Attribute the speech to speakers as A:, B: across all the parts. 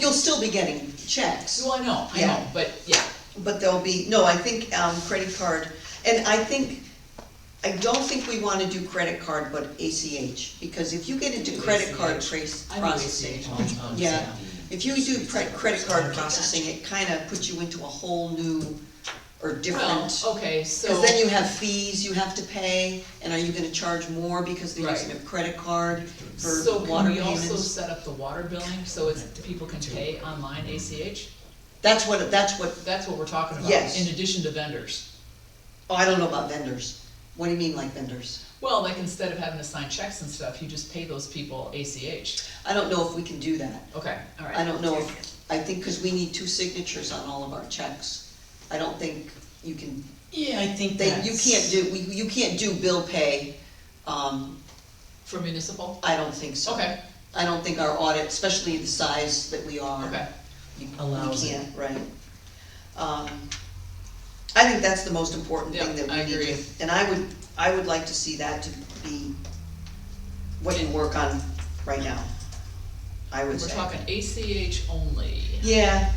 A: You'll still be getting checks,
B: Well, I know, I
A: Yeah.
B: know, but yeah,
A: but there'll be, no, I think, um, credit card, and I think, I don't think we wanna do credit card, but ACH, because if you get into credit card
B: ACH.
A: trace
B: I know
A: processing,
B: ACH all the time.
A: yeah, if you do pre- credit card processing, it kinda puts you into a whole new or
B: Well,
A: different.
B: okay, so,
A: Cause then you have fees you have to pay, and are you gonna charge more because they're using a credit card for
B: so can
A: water
B: we also
A: payments?
B: set up the water billing, so it's, people can pay online
A: Mm-hmm.
B: ACH?
A: That's what, that's what,
B: That's what we're talking about,
A: Yes.
B: in addition to vendors.
A: oh, I don't know about vendors, what do you mean like vendors?
B: Well, like, instead of having to sign checks and stuff, you just pay those people ACH.
A: I don't know if we can do that.
B: Okay, all right.
A: I don't know if, I think, because we need two signatures on all of our checks. I don't think you can,
C: Yeah, I think
A: they,
C: that
A: you can't do, we- you can't do bill pay. Um,
B: For municipal?
A: I don't think so.
B: Okay,
A: I don't think our audit, especially the size that we are.
B: okay.
A: you-
C: Allows it.
A: You can't, right. Um, I think that's the most important thing that
B: Yeah,
A: we
B: I
A: need to.
B: agree.
A: And I would, I would like to see that to be what you work on right now, I would
B: We're
A: say.
B: talking ACH only.
A: Yeah,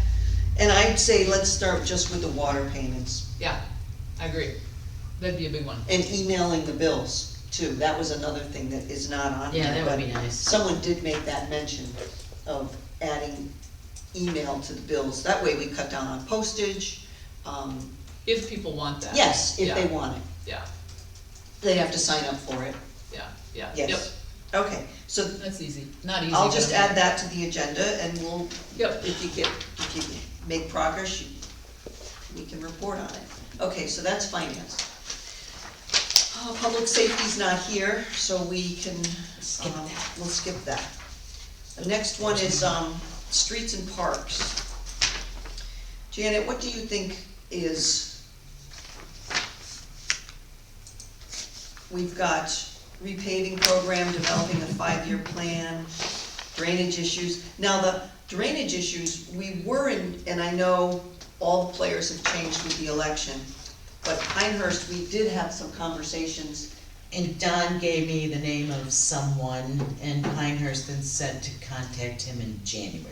A: and I'd say let's start just with the water payments
B: Yeah, I agree. That'd be a big one.
A: and emailing the bills too. That was another thing that is not on here.
C: Yeah, that would be
A: but
C: nice.
A: Someone did make that mention of adding email to the bills. That way we cut down on postage. Um,
B: If people want that.
A: yes, if they
B: Yeah,
A: want it.
B: Yeah,
A: They have to sign up for it.
B: yeah, yeah. Yep.
A: Yes. Okay, so
B: That's easy, not easy.
A: I'll
B: but
A: just
B: I'm-
A: add that to the agenda and we'll,
B: Yep.
A: if you get, if you make progress, you, we can report on it. Okay, so that's finance. Uh, public safety's not here, so we can,
C: Skip
A: um,
C: that.
A: we'll skip that. The next one is, um, streets and parks. Janet, what do you think is? We've got repaving program, developing a five-year plan, drainage issues. Now, the drainage issues, we were in, and I know all the players have changed with the election, but Pinehurst, we did have some conversations.
C: And Don gave me the name of someone, and Pinehurst then said to contact him in January.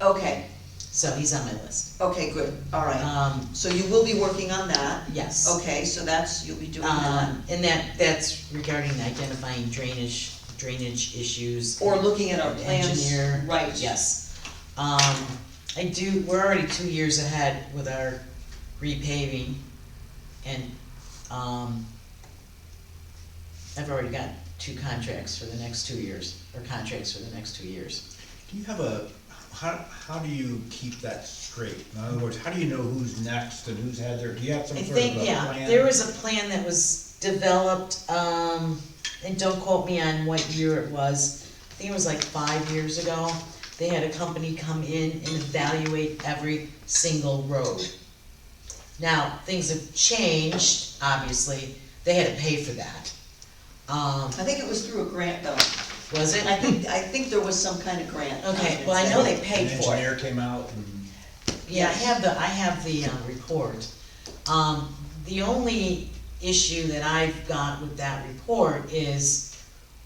A: Okay,
C: So he's on my list.
A: okay, good, all right.
C: Um,
A: So you will be working on that.
C: yes.
A: Okay, so that's, you'll be doing that.
C: Um, and that, that's regarding identifying drainage, drainage issues.
A: Or looking at our plans.
C: Engineer.
A: Right.
C: Yes. Um, I do, we're already two years ahead with our repaving and, um, I've already got two contracts for the next two years, or contracts for the next two years.
D: Do you have a, how, how do you keep that straight? In other words, how do you know who's next and who's had their, do you have some
C: I
D: sort of a
C: think,
D: plan?
C: yeah, there was a plan that was developed, um, and don't quote me on what year it was. I think it was like five years ago. They had a company come in and evaluate every single road. Now, things have changed, obviously. They had to pay for that. Um,
A: I think it was through a grant though.
C: was it?
A: I think, I think there was some kind of grant.
C: Okay, well, I know they paid
D: An
C: for it.
D: engineer came out and.
C: Yeah, I have the, I have the uh, report. Um, the only issue that I've got with that report is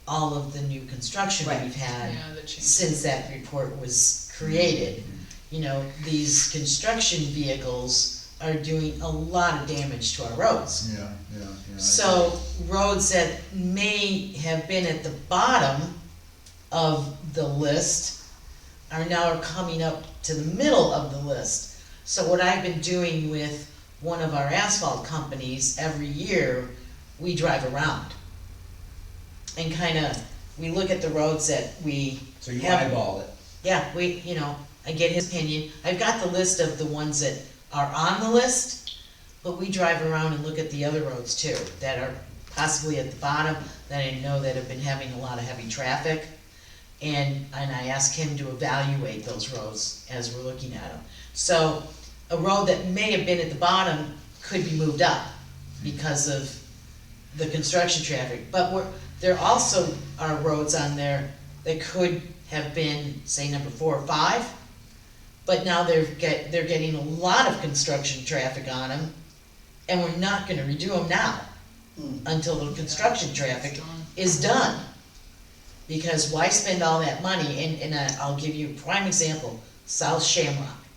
C: all of the new construction
A: Right.
C: we've had
B: Yeah, that changes.
C: since that report was created. You know, these construction vehicles are doing a lot of damage to our roads.
D: Yeah, yeah, yeah.
C: So roads that may have been at the bottom of the list are now coming up to the middle of the list. So what I've been doing with one of our asphalt companies, every year, we drive around. And kinda, we look at the roads that we
D: So you
C: have-
D: eyeball it.
C: yeah, we, you know, I get his opinion. I've got the list of the ones that are on the list, but we drive around and look at the other roads too, that are possibly at the bottom, that I know that have been having a lot of heavy traffic. And, and I ask him to evaluate those roads as we're looking at them. So a road that may have been at the bottom could be moved up because of the construction traffic, but we're, there also are roads on there that could have been, say, number four or five, but now they're get, they're getting a lot of construction traffic on them, and we're not gonna redo them now,
A: Hmm.
C: until the construction traffic
B: It's done.
C: is done. Because why spend all that money, and, and I- I'll give you a prime example, South Shamrock.